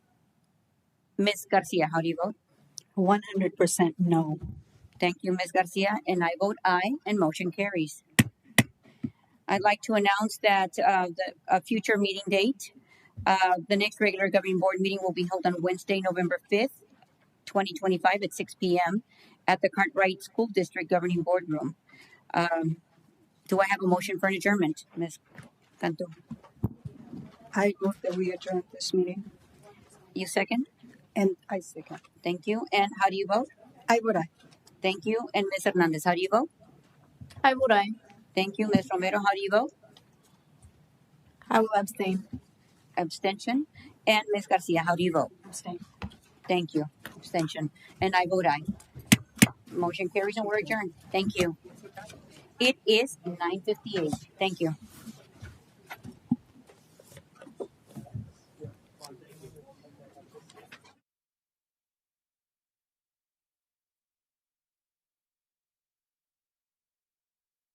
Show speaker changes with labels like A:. A: Ms. Garcia, how do you vote?
B: 100% no.
A: Thank you, Ms. Garcia, and I vote aye, and motion carries. I'd like to announce that uh, the a future meeting date. Uh, the next regular governing board meeting will be held on Wednesday, November fifth, twenty twenty-five, at six P M. At the Cartwright School District Governing Board Room. Um, do I have a motion for an adjournment, Ms. Cantu?
B: I move that we adjourn this meeting.
A: You second?
B: And I second.
A: Thank you. And how do you vote?
B: I would I.
A: Thank you. And Ms. Hernandez, how do you vote?
C: I would I.
A: Thank you. Ms. Romero, how do you vote?
C: I will abstain.
A: Abstention. And Ms. Garcia, how do you vote?
C: Abstain.
A: Thank you. Abstention. And I vote aye. Motion carries and we're adjourned. Thank you. It is nine fifty-eight. Thank you.